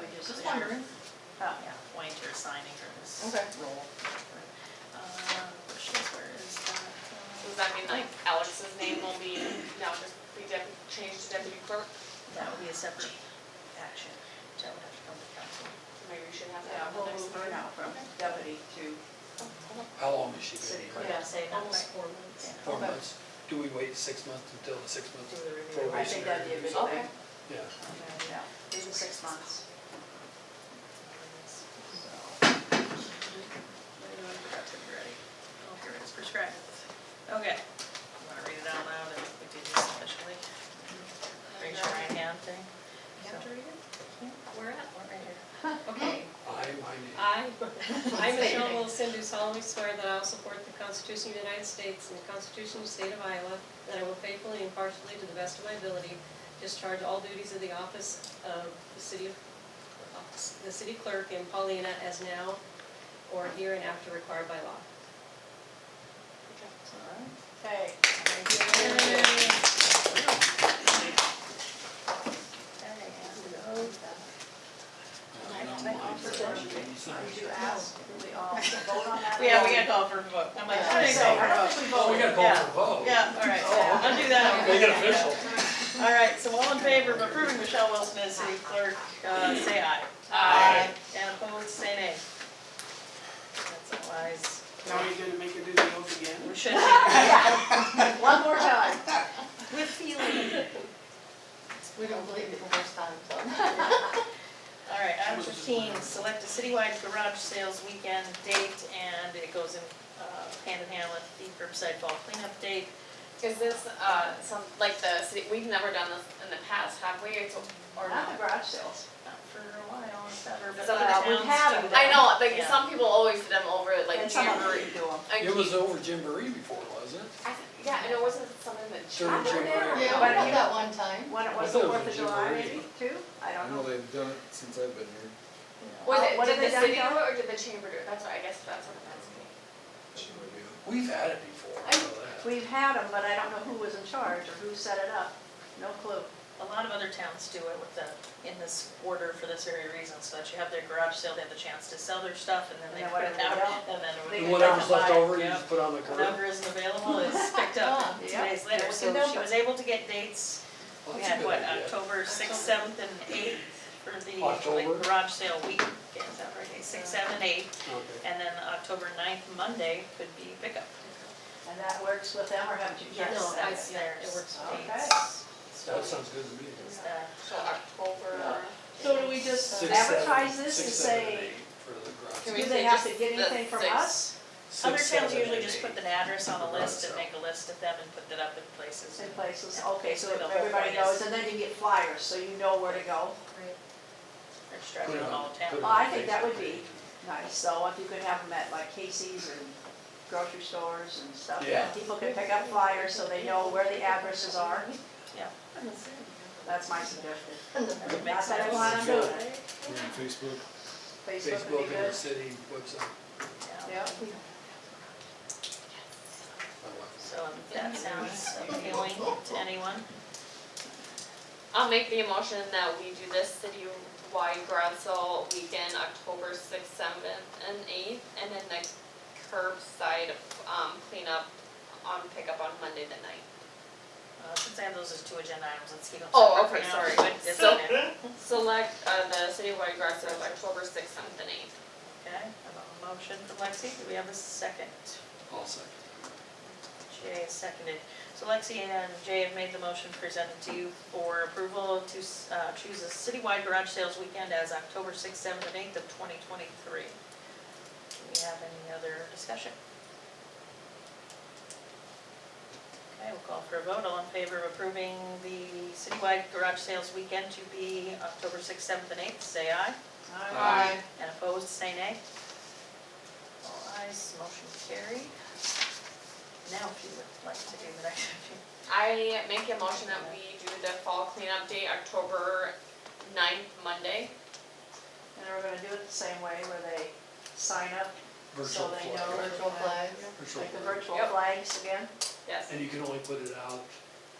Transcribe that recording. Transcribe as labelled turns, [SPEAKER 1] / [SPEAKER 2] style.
[SPEAKER 1] wondering.
[SPEAKER 2] Oh, yeah, White you're signing or this
[SPEAKER 1] Okay.
[SPEAKER 2] role. Uh, Bushes, where is that?
[SPEAKER 3] So
[SPEAKER 2] Uh,
[SPEAKER 3] does that mean like Alex's name will be now just be deputy, changed to deputy clerk?
[SPEAKER 2] That would be a separate action, that would have to come to council.
[SPEAKER 3] Maybe we should have
[SPEAKER 1] Yeah,
[SPEAKER 3] that on
[SPEAKER 1] we'll
[SPEAKER 3] the next
[SPEAKER 1] move her
[SPEAKER 3] meeting.
[SPEAKER 1] now from deputy to
[SPEAKER 4] How long has she
[SPEAKER 1] city
[SPEAKER 4] been?
[SPEAKER 1] clerk.
[SPEAKER 2] Yeah, say not quite.
[SPEAKER 5] Almost four months.
[SPEAKER 2] Yeah.
[SPEAKER 4] Four
[SPEAKER 1] Okay.
[SPEAKER 4] months. Do we wait six months until the six months?
[SPEAKER 5] Do the review.
[SPEAKER 4] probationary?
[SPEAKER 1] I think that'd be a good thing,
[SPEAKER 3] Okay.
[SPEAKER 4] Yeah.
[SPEAKER 1] yeah. These are six months.
[SPEAKER 2] Anyone who got to be ready? Oh, here it is prescribed. Okay. You wanna read it out loud and we do this officially? Raise your right hand thing.
[SPEAKER 1] You have to read it?
[SPEAKER 2] We're at, we're right here.
[SPEAKER 1] Okay.
[SPEAKER 4] I, my name.
[SPEAKER 5] I, I,
[SPEAKER 1] Say your
[SPEAKER 5] Michelle
[SPEAKER 1] name.
[SPEAKER 5] Wilson, do solemnly swear that I will support the Constitution of the United States and the Constitution of the State of Iowa, that I will faithfully and impartially, to the best of my ability, discharge all duties of the office of the city, of- the city clerk in Paulina as now or here and after required by law.
[SPEAKER 1] Okay. Would you ask, do we all vote on that?
[SPEAKER 2] Yeah, we gotta call for a vote. I'm like, how do
[SPEAKER 1] Yeah,
[SPEAKER 2] you
[SPEAKER 1] so
[SPEAKER 2] say?
[SPEAKER 1] I don't think we
[SPEAKER 4] Oh, we
[SPEAKER 1] voted.
[SPEAKER 4] gotta call for a vote.
[SPEAKER 2] Yeah, all right, I'll do that.
[SPEAKER 4] Make it official.
[SPEAKER 2] All right, so all in favor of approving Michelle Wilson as city clerk, uh, say aye.
[SPEAKER 3] Aye.
[SPEAKER 2] And opposed, say nay. That's all ayes.
[SPEAKER 6] Now you're gonna make her do the oath again?
[SPEAKER 2] We should be
[SPEAKER 1] One more time.
[SPEAKER 2] with feeling.
[SPEAKER 1] We don't believe it the first time, so.
[SPEAKER 2] All right, item fifteen, select a citywide garage sales weekend date, and it goes in uh, hand in hand with the curbside fall cleanup date.
[SPEAKER 3] Is this, uh, some, like the city, we've never done this in the past, have we, It's- or
[SPEAKER 1] Not
[SPEAKER 3] not?
[SPEAKER 1] the garage sales.
[SPEAKER 2] Not for a while, it's never, but
[SPEAKER 3] Some of the
[SPEAKER 2] other
[SPEAKER 1] uh, we've
[SPEAKER 2] towns
[SPEAKER 1] had
[SPEAKER 2] do
[SPEAKER 1] them.
[SPEAKER 2] that.
[SPEAKER 3] I know, like,
[SPEAKER 2] Yeah.
[SPEAKER 3] some people always do them over, like,
[SPEAKER 1] And some of
[SPEAKER 3] Jamboree.
[SPEAKER 1] them do them.
[SPEAKER 3] I
[SPEAKER 4] It was
[SPEAKER 3] keep-
[SPEAKER 4] over Jamboree before, wasn't it?
[SPEAKER 3] I th- Yeah, and it wasn't something that
[SPEAKER 4] During
[SPEAKER 3] Chapel did, or-
[SPEAKER 4] Jamboree.
[SPEAKER 1] Yeah.
[SPEAKER 5] I did that one time.
[SPEAKER 1] When it was the
[SPEAKER 4] I thought it was
[SPEAKER 1] Fourth of
[SPEAKER 4] a
[SPEAKER 1] July,
[SPEAKER 4] jamboree.
[SPEAKER 1] maybe, too? I
[SPEAKER 7] I
[SPEAKER 1] don't
[SPEAKER 7] know
[SPEAKER 1] know.
[SPEAKER 7] they've done it since I've been here.
[SPEAKER 3] Was
[SPEAKER 1] Uh,
[SPEAKER 3] it,
[SPEAKER 1] what have
[SPEAKER 3] did
[SPEAKER 1] they
[SPEAKER 3] the
[SPEAKER 1] done,
[SPEAKER 3] city do
[SPEAKER 1] John?
[SPEAKER 3] it, or did the chamber do it, that's what, I guess that's what I'm asking.
[SPEAKER 4] We've had it before, I know that.
[SPEAKER 1] We've had them, but I don't know who was in charge or who set it up. No clue.
[SPEAKER 2] A lot of other towns do it with the, in this order for this very reason, so that you have their garage sale, they have the chance to sell their stuff, and then
[SPEAKER 1] And
[SPEAKER 2] they
[SPEAKER 1] then
[SPEAKER 2] put it
[SPEAKER 1] whatever
[SPEAKER 2] out,
[SPEAKER 1] they don't,
[SPEAKER 2] and then.
[SPEAKER 1] they
[SPEAKER 2] we-
[SPEAKER 4] And whatever's left over, you
[SPEAKER 2] Yeah.
[SPEAKER 4] just put on the curb.
[SPEAKER 2] Whatever isn't available is picked up two
[SPEAKER 1] Yeah.
[SPEAKER 2] days later,
[SPEAKER 1] There's
[SPEAKER 2] so
[SPEAKER 1] no
[SPEAKER 2] she was able to get dates,
[SPEAKER 4] Well,
[SPEAKER 2] we
[SPEAKER 4] that's a
[SPEAKER 2] had
[SPEAKER 4] good
[SPEAKER 2] what,
[SPEAKER 4] idea.
[SPEAKER 2] October sixth, seventh, and eighth for the
[SPEAKER 4] October.
[SPEAKER 2] like garage sale week, is that right, six, seven, eight,
[SPEAKER 4] Okay.
[SPEAKER 2] and then October 9th, Monday could be pickup.
[SPEAKER 1] and that works with them, or haven't you? checked
[SPEAKER 2] Yes,
[SPEAKER 1] that?
[SPEAKER 2] that's
[SPEAKER 5] yeah, it
[SPEAKER 2] theirs.
[SPEAKER 5] works
[SPEAKER 1] for me.
[SPEAKER 2] Dates.
[SPEAKER 4] That sounds good to me.
[SPEAKER 2] Is that-
[SPEAKER 3] So October.
[SPEAKER 1] So do we just
[SPEAKER 4] Six, seven-
[SPEAKER 1] advertise this and
[SPEAKER 4] six, seven,
[SPEAKER 1] say,
[SPEAKER 4] eight For the garage.
[SPEAKER 1] do
[SPEAKER 3] Can we
[SPEAKER 1] they
[SPEAKER 3] say
[SPEAKER 1] have to
[SPEAKER 3] just
[SPEAKER 1] get
[SPEAKER 3] the
[SPEAKER 1] anything from
[SPEAKER 3] six?
[SPEAKER 1] us?
[SPEAKER 2] Other
[SPEAKER 4] Six,
[SPEAKER 2] towns
[SPEAKER 4] seven,
[SPEAKER 2] usually
[SPEAKER 4] and
[SPEAKER 2] just
[SPEAKER 4] eight.
[SPEAKER 2] put an address on a
[SPEAKER 4] Right,
[SPEAKER 2] list and
[SPEAKER 4] so.
[SPEAKER 2] make a list of them and put that up in places.
[SPEAKER 1] in places? Okay, so
[SPEAKER 2] Basically, the whole
[SPEAKER 1] everybody
[SPEAKER 2] point is-
[SPEAKER 1] knows, and then you get flyers, so you know where to go.
[SPEAKER 2] They're strapping on all
[SPEAKER 4] Put it
[SPEAKER 2] town.
[SPEAKER 1] Well,
[SPEAKER 4] on
[SPEAKER 1] I think that would be-
[SPEAKER 4] Facebook page.
[SPEAKER 1] Nice, so if you could have them at like Casey's and grocery stores and stuff,
[SPEAKER 4] Yeah.
[SPEAKER 1] people can pick up flyers so they know where the addresses are.
[SPEAKER 2] Yeah.
[SPEAKER 1] That's my suggestion.
[SPEAKER 2] That would make
[SPEAKER 1] Not that I want
[SPEAKER 2] sense.
[SPEAKER 1] to do it,
[SPEAKER 7] Maybe Facebook.
[SPEAKER 1] Facebook
[SPEAKER 4] Facebook
[SPEAKER 1] would
[SPEAKER 4] and
[SPEAKER 1] be
[SPEAKER 4] the
[SPEAKER 1] good.
[SPEAKER 4] city website.
[SPEAKER 2] Yeah.
[SPEAKER 1] Yeah,
[SPEAKER 4] My wife.
[SPEAKER 2] So um, if that sounds appealing to anyone.
[SPEAKER 3] I'll make the motion that we do this citywide garage sale weekend, October sixth, seventh, and eighth, and then the curbside, um, cleanup on pickup on Monday the ninth.
[SPEAKER 2] Uh, Since I have those as two agenda items, let's keep them
[SPEAKER 3] Oh,
[SPEAKER 2] separate for
[SPEAKER 3] okay,
[SPEAKER 2] now,
[SPEAKER 3] sorry.
[SPEAKER 2] but it's
[SPEAKER 3] So-
[SPEAKER 2] okay.
[SPEAKER 3] Select, uh, the citywide garage sale, October sixth, seventh, and eighth.
[SPEAKER 2] Okay, I have a motion from Lexi. Do we have a second?
[SPEAKER 4] I'll second.
[SPEAKER 2] Jay is seconded. So Lexi and Jay have made the motion presented to you for approval to uh, choose a citywide garage sales weekend as October 6th, 7th, and 8th of 2023. Do we have any other discussion? Okay, we'll call for a vote. All in favor of approving the citywide garage sales weekend to be October 6th, 7th, and 8th, say aye.
[SPEAKER 4] Aye.
[SPEAKER 2] And opposed, say nay. All ayes, motion carried. Now, if you would like to do the next few.
[SPEAKER 3] I make a motion that we do the fall cleanup day, October ninth, Monday.
[SPEAKER 1] and we're gonna do it the same way where they sign up, so
[SPEAKER 4] Virtual
[SPEAKER 1] they know.
[SPEAKER 4] flag.
[SPEAKER 1] Virtual flags.
[SPEAKER 4] Virtual
[SPEAKER 1] Like the
[SPEAKER 4] flag.
[SPEAKER 1] virtual
[SPEAKER 3] Yep.
[SPEAKER 1] flags again.
[SPEAKER 3] Yes.
[SPEAKER 4] And you can only put it out